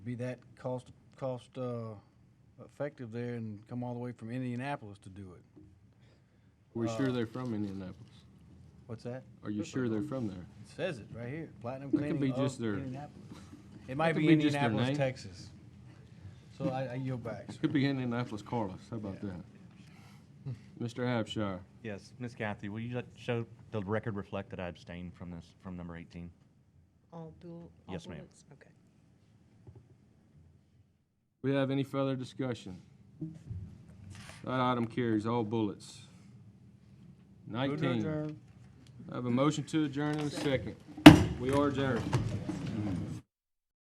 be that cost, cost, uh, effective there and come all the way from Indianapolis to do it. Are we sure they're from Indianapolis? What's that? Are you sure they're from there? It says it right here, Platinum That could be Cleaning just of their- Indianapolis. It might could be be just their Indianapolis, name. Texas. So I, I yield back, sir. Could be Indianapolis Carlos, how about that? Mr. Abshire, Yes, Ms. Kathy, will you let, show, the record reflect that I abstained from this, from number 18? All bull, all Yes, ma'am. bullets? Okay. we have any further discussion? That item carries all bullets. Nineteen, I have a motion to adjourn in a second. We are adjourned.